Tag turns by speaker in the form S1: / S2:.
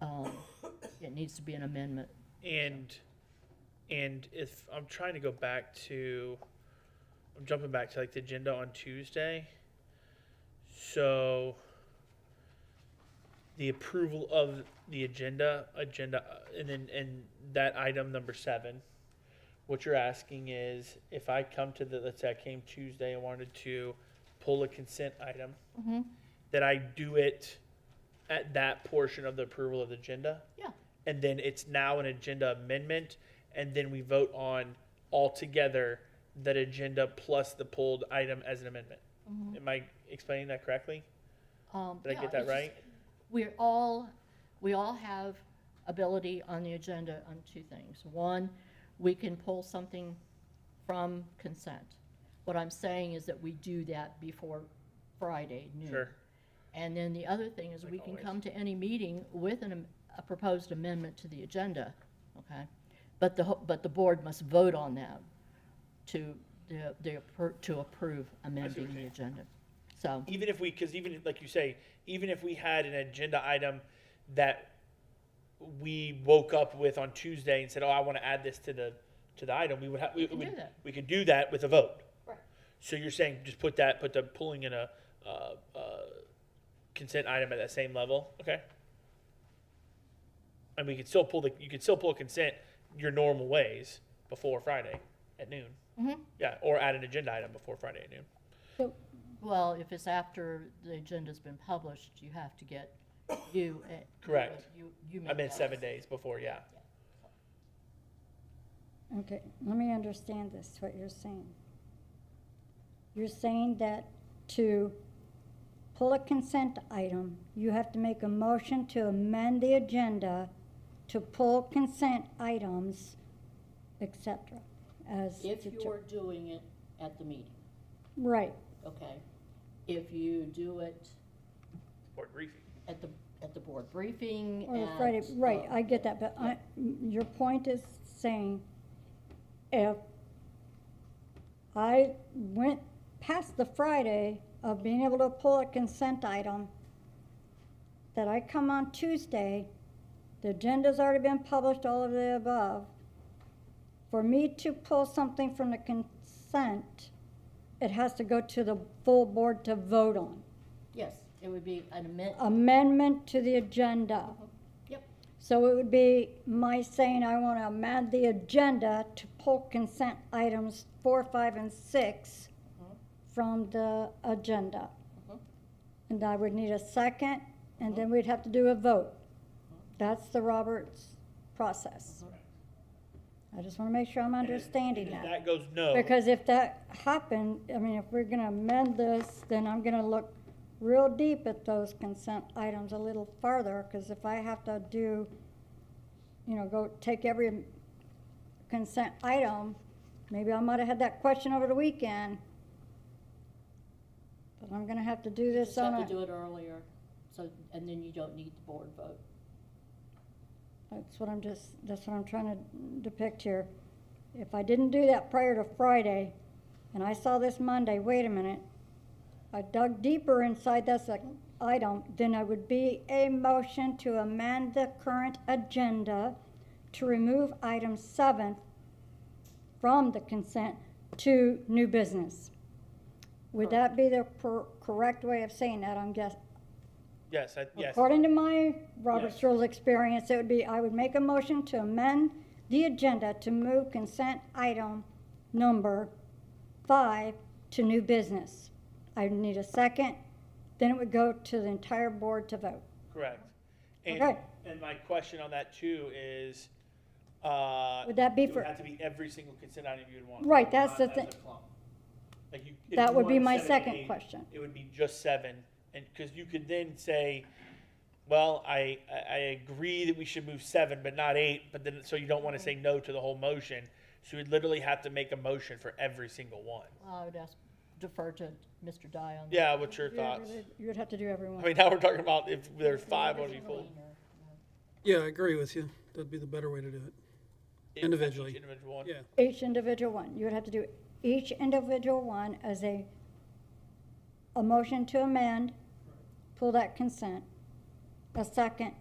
S1: Um, it needs to be an amendment.
S2: And, and if, I'm trying to go back to, I'm jumping back to like the agenda on Tuesday. So, the approval of the agenda, agenda, uh, and then, and that item number seven. What you're asking is, if I come to the, let's say I came Tuesday and wanted to pull a consent item,
S1: Mhm.
S2: that I do it at that portion of the approval of the agenda?
S1: Yeah.
S2: and then it's now an agenda amendment, and then we vote on altogether that agenda plus the pulled item as an amendment. Am I explaining that correctly?
S1: Um, Mm-hmm.
S2: Did I
S1: yeah,
S2: get that
S1: it's just-
S2: right?
S1: We're all, we all have ability on the agenda on two things. One, we can pull something from consent. What I'm saying is that we do that before Friday noon.
S2: Sure.
S1: And then the other thing is
S2: Like
S1: we can
S2: always.
S1: come to any meeting with an, am- a proposed amendment to the agenda, okay? But the, ho- but the board must vote on that to, the, the appro- to approve amending the
S2: saying.
S1: agenda. So,
S2: Even if we, because even, if- like you say, even if we had an agenda item that we woke up with on Tuesday and said, oh, I want to add this to the, to the item, we would have, we
S1: can do
S2: would,
S1: that.
S2: we could do that with a vote.
S1: Right.
S2: So you're saying just put that, put the pulling in a, uh, uh, consent item at that same level, okay? And we could still pull the, you could still pull consent your normal ways before Friday at noon.
S1: Mhm.
S2: Yeah, or add an agenda item before Friday at noon.
S1: well, if it's after the agenda's been published, you have to get, you. uh, you-
S2: Correct.
S1: You, you make
S2: I meant
S1: that.
S2: seven days before, yeah.
S3: Okay, let me understand this, what you're saying. You're saying that to pull a consent item, you have to make a motion to amend the agenda to pull consent items, et cetera, as.
S1: If
S3: deter-
S1: you're doing it at the meeting,
S3: Right,
S1: okay? If you do it
S2: Or briefing.
S1: at the, at the board briefing
S3: or
S1: at,
S3: Friday, right,
S1: uh,
S3: I get that, but I, your point is saying if I went past the Friday of being able to pull a consent item, that I come on Tuesday, the agenda's already been published, all of the above. For me to pull something from the consent, it has to go to the full board to vote on.
S1: Yes, it would be an amendment,
S3: Amendment to the agenda.
S1: yep,
S3: So it would be my saying I want to amend the agenda to pull consent items four, five, and six from the agenda.
S1: Mhm.
S3: And I would need a second, and then we'd have to do a vote. That's the Roberts process. I just want to make sure I'm understanding
S2: If
S3: that.
S2: That goes no.
S3: Because if that happened, I mean, if we're going to amend this, then I'm going to look real deep at those consent items a little farther, because if I have to do, you know, go take every consent item, maybe I might have had that question over the weekend. But I'm going to have to do
S4: You
S3: this
S4: Just
S3: on
S4: have to
S3: a,
S4: do it earlier, so, and then you don't need the board vote.
S3: that's what I'm just, that's what I'm trying to depict here. If I didn't do that prior to Friday, and I saw this Monday, wait a minute, I dug deeper inside this like, item, then I would be a motion to amend the current agenda to remove item seven from the consent to new business. Would that be the per- correct way of saying that, I'm guess,
S2: Yes, I, yes.
S3: According to my Robert's
S2: Yes.
S3: Rules experience, it would be, I would make a motion to amend the agenda to move consent item number five to new business. I would need a second, then it would go to the entire board to vote.
S2: Correct. And,
S3: Okay.
S2: and my question on that too is, uh.
S3: Would that be
S2: it would
S3: for-
S2: have to be every single consent item you'd want.
S3: Right,
S2: not
S3: that's the
S2: as
S3: thing.
S2: a clump. Like you. if
S3: That
S2: you
S3: would be
S2: wanted
S3: my
S2: seven,
S3: second
S2: eight,
S3: question.
S2: It would be just seven, and, cause you could then say, well, I, I, I agree that we should move seven, but not eight, but then, so you don't wanna say no to the whole motion. So you'd literally have to make a motion for every single one.
S1: I would ask, defer to Mr. Dye on that.
S2: Yeah, what's your thoughts?
S3: You would have to do
S2: I
S3: everyone.
S2: mean, now we're talking about if there's five on people.
S5: Yeah, I agree with you. That'd be the better way to do it. Individually.
S2: Individual one.
S5: Yeah.
S3: Each individual one, you would have to do each individual one as a, a motion to amend, pull that consent, a second,